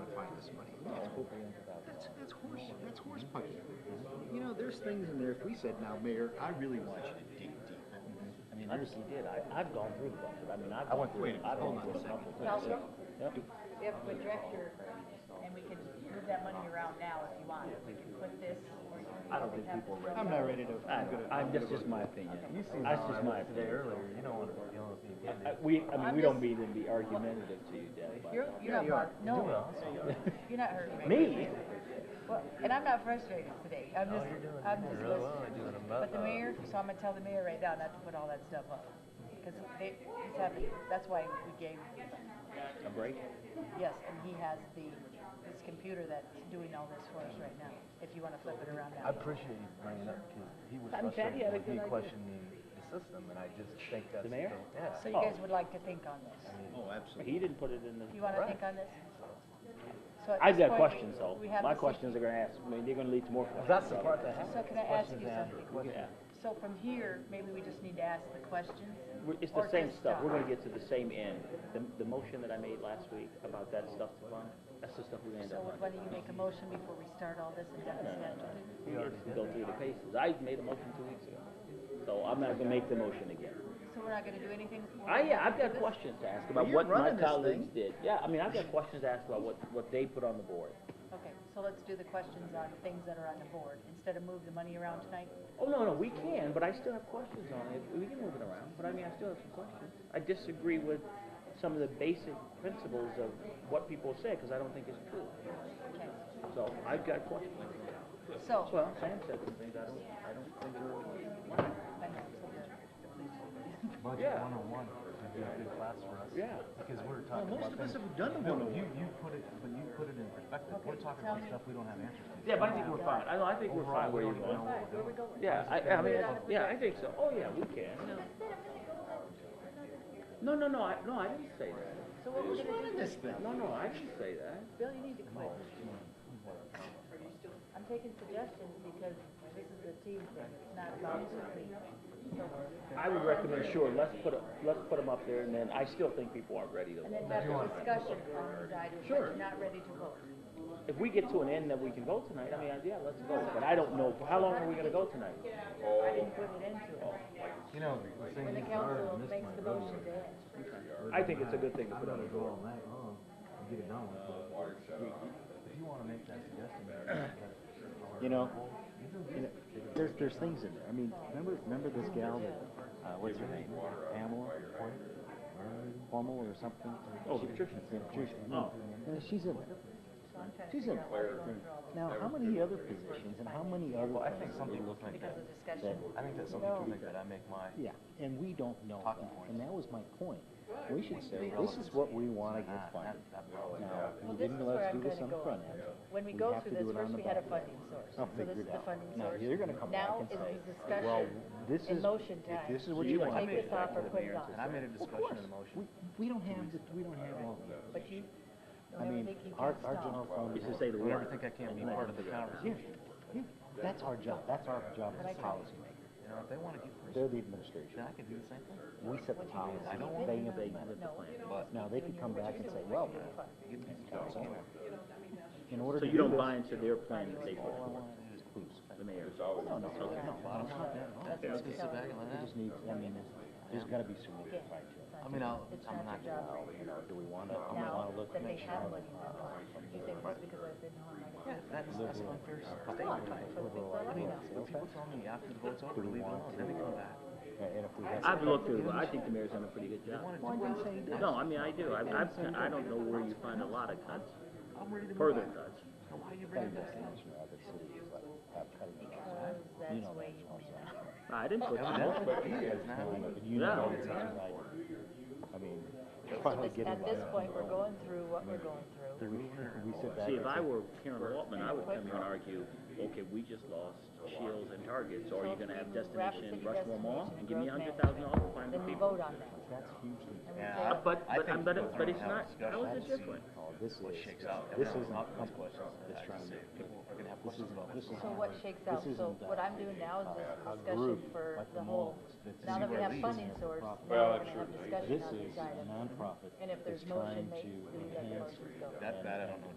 this money. That's, that's, that's horse, that's horse punching. You know, there's things in there, if we said, now, Mayor, I really want you to dig deep. I mean, I there's, just did. I, I've gone through the budget. I mean, I've I went gone through it. I've Hold gone on through a a second. couple of Now, things. if, Yep. if the director, and we can move that money around now if you want, we can put this, or you can. I don't think people are ready. I'm not ready to, I, I'm gonna. I'm, that's just my opinion. That's just my opinion. earlier, you don't want to be dealing with me I, we, I mean, I'm we don't mean just- to be argumentative to you, Deb. but- You're, you're not, bothered. no, you're not hurting me. Me? Well, and I'm not frustrated today, I'm just, Oh, you're doing- I'm you're just really well, listening. you're doing a mo- But the uh, mayor, so I'm gonna tell the mayor right now not to put all that stuff up, because they, he's having, that's why we gave, A break? yes, and he has the, this computer that's doing all this for us right now, if you wanna flip it around I now. appreciate you bringing it up because he was I'm glad he frustrated had a with me good idea. questioning the system, and I just think that's The mayor? yeah. So you guys would like to think on this? Oh, absolutely. He didn't put it in the. You wanna think on this? So at I've this got point, questions we- though. we have My this- questions are gonna ask, I mean, they're gonna lead to more questions. That's the probably. part that happens. So can I ask you something? Yeah. So from here, maybe we just need to ask the questions? We're- It's or the same just stuff. We're stop? gonna get to the same end. The, the motion that I made last week about that stuff to fund, that's the stuff we're gonna end So up would funding. one of you make a motion before we start all this and down the schedule? We have to go through the paces. I made a motion two weeks ago. So I'm not gonna make the motion again. So we're not gonna do anything? we're I, not yeah, gonna I've do got this? questions to ask about you're what my running this colleagues thing. did. Yeah, I mean, I've got questions to ask about what, what they put on the board. Okay, so let's do the questions on things that are on the board, instead of move the money around tonight? Oh, no, no, we can, but I still have questions on it. We can move it around, but I mean, I still have some questions. I disagree with some of the basic principles of what people say, because I don't think it's true. Okay, So I've got questions. so. Well, Sam said some things I don't, I don't think are right. I know, so the- Budget Yeah. 101 would be a good class for us. Yeah. Because Well, we're talking most about of us things. have done the No, one you, over. you put it, but you put it in perspective. Okay, We're talking tell about me- stuff we don't have answers to. Yeah, but I think we're fine. I, know, I think we're fine where you're going. Yeah, I, I mean, yeah, I think so. Oh, yeah, we can. No, no, no, I, no, I didn't say that. So what we're Who's gonna do, running this thing? No, no, I didn't say that. Bill, you need to quit. I'm taking suggestions because this is a team thing, it's not about just me. I would recommend, sure, let's put, a- let's put them up there, and then I still think people aren't ready to And then vote. have a discussion on these items, but you're not ready to vote. If we get to an end that we can vote tonight, I mean, yeah, let's vote, but I don't know, how long are we gonna go tonight? I didn't put it into it. You know, the thing When the is, I already council missed makes my the vote. motion to end. I think it's a good thing to I'm put on gonna the go board. all night long and get it done with. but If you wanna make that suggestion, You know, you know, there's, there's things in there. I mean, remember, remember this gal that, uh, what's her name? Pamela? Hormel or something? Oh, Patricia. Yeah, Patricia. No, she's in there. So I'm trying to She's in figure out why there. you're going through all this. Now, how many other positions and how many other? Well, I think some people think Because of that, discussion. I think that some people think that I make my, Yeah, and we don't know Talking that, points. and that was my point. We should say, this is what we wanna get not, funded. not probably. Now, Well, we this didn't is let where us I'm do gonna this on the go. front end. When we We go have to do through this, it on the first we had a back funding source. I'll So this figure is it the out. funding Now, source. you're gonna come back and say, Now is the discussion. well, this and is- motion time. this is what Do you want. Take this off or put it on. And I made a discussion in the motion. We, we don't have, the- we don't have all of that. But you I don't ever mean, think you our, can our stop. general fund. It's to say the Don't ever word. think I can't be part of the Yeah, conversation. yeah, that's our job, that's our job as policymakers. You know, if they wanna get They're personal, the administration. then I can do the same thing. We set the policy, I don't want they to- implement the No. plan. Now, they could come back and say, well, Get these guys in. in order to So you do don't this, buy into their plan that they put forward, please. the mayor? No, no, no, no, Bottom's not that wrong. Let's just sit back and let we that. just need, I mean, there's gotta be some way to fight it. I mean, I'll, It's I'm not not your gonna. job right You know, do we wanna, I'm gonna now wanna look, that they make sure. have money in that line. You think just because I've been home, I Yeah, can. that's, that's an unfair Come on, statement. for the people I I mean, love. when people tell me after the vote's over, leave it alone, then they come back. And if we have. I've looked through, I think the mayor's done a pretty good They wanna job. do it. No, I mean, I do. I, I've, I don't know where you find a lot of cuts, I'm ready to. further cuts. So why you bring That it up? investigation of other cities, like, have cutting Because costs. You that's know where that's you what win. I'm saying. I Oh, didn't put that. That's what it is now. You Yeah. know, it's not right. I mean, they're finally This- getting. At this right. point, we're going through what we're going through. Then we, we sit back. See, if and I say, were Karen Waltman, I would come here and argue, okay, we just lost Shields and Target, so are you gonna have Destination Rushmore Mall and give me a hundred thousand dollars to find the Then we people? Uh, vote on that. That's hugely, And we Yeah, say, But, I but, think I'm- but, we're it- but it's gonna not, have a how is discussion. it different? oh, this is, Shakes out. this Everyone isn't wants a company questions. that's trying to Say, make People are gonna have questions about this this. is. So what shakes out, so what I'm doing now is this a discussion group, for like the the whole, malls that now that we zero have leads funding have source, profit. now we're gonna have This discussion on is these a items. nonprofit And that's if there's motion, trying they, to we do that enhance motion, so. That, that I don't know.